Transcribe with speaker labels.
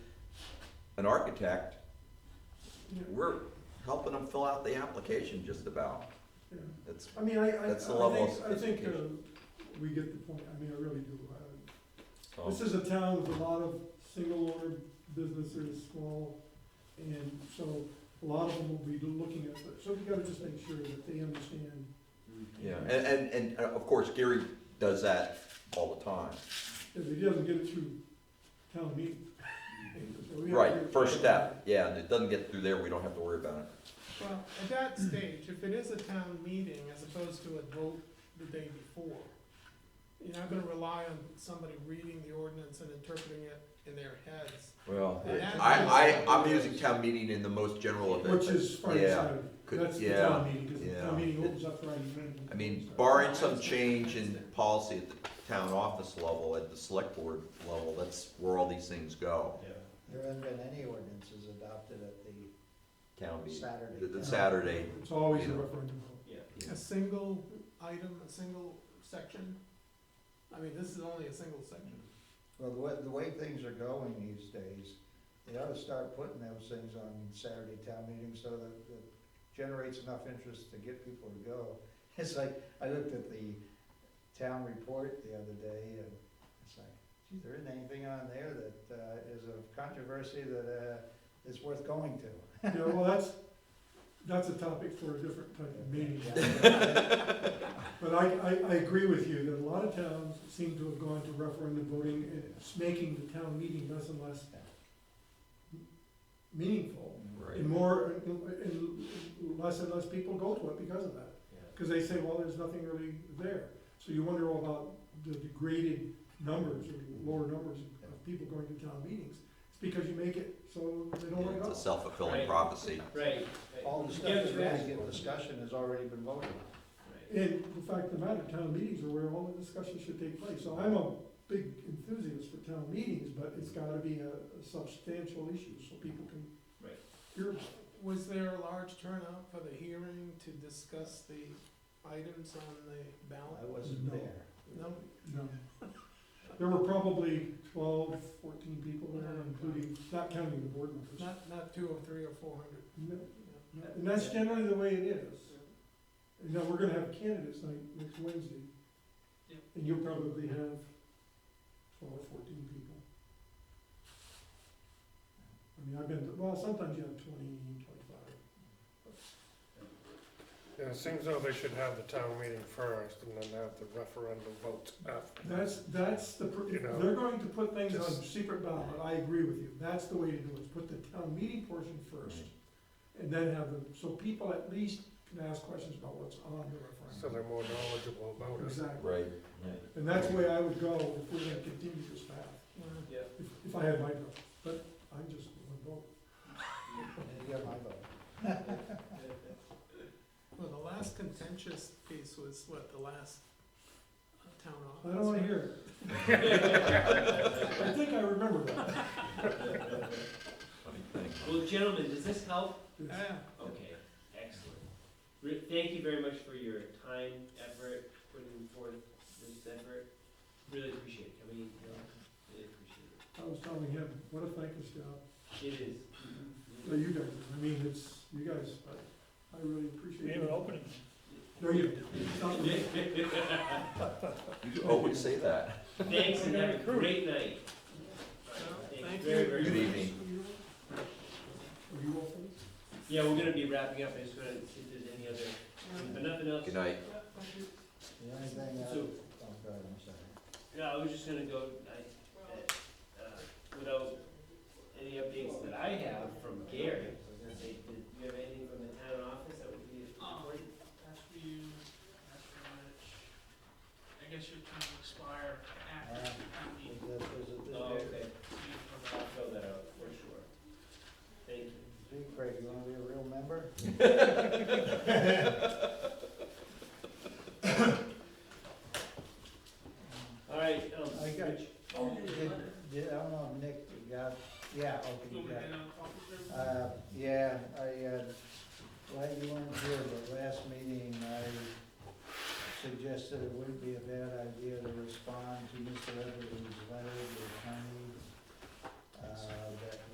Speaker 1: an architect, we're helping them fill out the application just about.
Speaker 2: Yeah.
Speaker 1: It's,
Speaker 2: I mean, I, I, I
Speaker 1: That's the level
Speaker 2: think,
Speaker 1: of
Speaker 2: I think, uh,
Speaker 1: sophistication.
Speaker 2: we get the point, I mean, I really do. Uh,
Speaker 3: So,
Speaker 2: This is a town with a lot of single owner businesses, small, and so a lot of them will be looking at, it. so we gotta just make sure that they understand.
Speaker 1: Mm, yeah, and, and, and uh, of course Gary does that all the time.
Speaker 2: If he doesn't get it through town meeting. So we have to
Speaker 1: Right,
Speaker 2: get-
Speaker 1: first step, yeah, and it doesn't get through there, we don't have to worry about it.
Speaker 4: Well, at that stage, if it is a town meeting as opposed to a vote the day before, you're not gonna rely on somebody reading the ordinance and interpreting it in their heads.
Speaker 1: Well.
Speaker 4: Yeah.
Speaker 1: I, I, I'm using town meeting in the most general of it.
Speaker 2: Which is Friday,
Speaker 1: Yeah,
Speaker 2: Saturday,
Speaker 1: could-
Speaker 2: that's the
Speaker 1: yeah,
Speaker 2: town meeting, cause the
Speaker 1: yeah.
Speaker 2: town meeting opens up Friday night.
Speaker 1: I mean,
Speaker 2: So-
Speaker 1: barring some change in policy at the town office level, at the select board level, that's where all these things go.
Speaker 5: There haven't been any ordinances adopted at the
Speaker 1: Town meeting, the,
Speaker 5: Saturday.
Speaker 1: the Saturday,
Speaker 2: It's always
Speaker 1: Yeah.
Speaker 2: a referendum vote.
Speaker 4: A single item, a single section, I mean, this is only a single section.
Speaker 5: Well, the way, the way things are going these days, they ought to start putting those things on Saturday town meetings so that it generates enough interest to get people to go. It's like, I looked at the town report the other day and it's like, gee, there isn't anything on there that, uh, is of controversy that, uh, is worth going to.
Speaker 2: Yeah, well, that's, that's a topic for a different type of meeting. But I, I, I agree with you that a lot of towns seem to have gone to referendum voting and it's making the town meeting less and less meaningful.
Speaker 1: right,
Speaker 2: And more, and less and less people go to it because of that. Because they say, well, there's nothing really there. So you wonder all about the degraded numbers or lower numbers of people going to town meetings. It's because you make it so they don't want to
Speaker 1: it's
Speaker 2: go.
Speaker 1: a self-fulfilling
Speaker 6: Right.
Speaker 1: prophecy.
Speaker 6: Right.
Speaker 5: All the stuff that's really getting discussion has already been voted on.
Speaker 2: And the fact of the matter, town meetings are where all the discussion should take place. So I'm a big enthusiast for town meetings, but it's gotta be a a substantial issue so people can
Speaker 6: Right.
Speaker 2: hear about it.
Speaker 4: Was there a large turnout for the hearing to discuss the items on the
Speaker 5: I
Speaker 4: ballot?
Speaker 5: wasn't
Speaker 2: No.
Speaker 5: there.
Speaker 4: No,
Speaker 2: No. There were probably 12, 14 people there, including, not counting the board members.
Speaker 4: not, not two or three or four hundred.
Speaker 2: No,
Speaker 4: no.
Speaker 2: no. And that's generally the way it is. You know, we're gonna have candidates night next Wednesday.
Speaker 6: Yep.
Speaker 2: And you'll probably have twelve or fourteen people. I mean, I've been, to- well, sometimes you have twenty, twenty-five.
Speaker 7: Yeah, it seems though they should have the town meeting first and then have the referendum vote after.
Speaker 2: That's, that's the, pr-
Speaker 7: You
Speaker 2: if
Speaker 7: know,
Speaker 2: they're going to put things on
Speaker 7: just-
Speaker 2: secret ballot, I agree with you, that's the way to do it, is put the town meeting portion first. And then have them, so people at least can ask questions about what's on the
Speaker 7: So
Speaker 2: referendum.
Speaker 7: they're more knowledgeable about it.
Speaker 2: Exactly,
Speaker 1: Right.
Speaker 2: and that's the way I would go if we're gonna continue this path,
Speaker 4: Well,
Speaker 6: Yeah.
Speaker 2: if, if I had my vote, but I'm just one vote.
Speaker 5: And you got my vote.
Speaker 4: Well, the last contentious piece was what, the last uh, town office?
Speaker 2: I don't wanna hear it. I think I remember that.
Speaker 1: Funny thing.
Speaker 6: Well, gentlemen, does this help?
Speaker 2: Yes.
Speaker 4: Yeah,
Speaker 6: Okay, excellent. Re- Thank you very much for your time, effort, putting forth this effort. Really appreciate it. I mean, you know, really appreciate
Speaker 2: I was telling him, what a thankless job,
Speaker 6: it. It is.
Speaker 2: No, you guys, I mean, it's, you guys, I, I really appreciate it.
Speaker 7: opening.
Speaker 2: There you go. It's not for me.
Speaker 1: You always say that.
Speaker 6: Thanks and have a great night.
Speaker 4: Well,
Speaker 6: Thanks
Speaker 4: thank
Speaker 6: very,
Speaker 4: you.
Speaker 6: very
Speaker 1: Good
Speaker 6: much.
Speaker 1: evening.
Speaker 2: Are you all finished?
Speaker 6: Yeah, we're gonna be wrapping up. I just wanna see if there's any other,
Speaker 8: Um,
Speaker 4: well,
Speaker 6: if nothing else.
Speaker 1: Good night.
Speaker 4: yeah, thank you.
Speaker 5: The only thing, I-
Speaker 6: So-
Speaker 5: oh, go ahead, I'm sorry.
Speaker 6: No, I was just gonna go, I, uh, without any updates that I have from Gary, I was gonna say, did you have anything from the town office that would be important?
Speaker 8: That's for you, that's for Rich. I guess your term will expire after
Speaker 5: Uh,
Speaker 8: the town meeting.
Speaker 5: Is that- is it this
Speaker 6: Oh,
Speaker 5: day?
Speaker 6: okay, I'll fill that out for sure. Thank you.
Speaker 5: Gee, Craig, you wanna be a real member?
Speaker 6: All right, um,
Speaker 5: I got-
Speaker 6: Rich,
Speaker 5: Did- did- I don't know, if Nick, you got, yeah, okay,
Speaker 8: Go
Speaker 5: you got
Speaker 8: ahead
Speaker 5: it.
Speaker 8: and offer them.
Speaker 5: Uh, yeah, I, uh, glad you weren't here, but last meeting, I suggested it wouldn't be a bad idea to respond to Mr. Everly's letter to Connie. Uh, that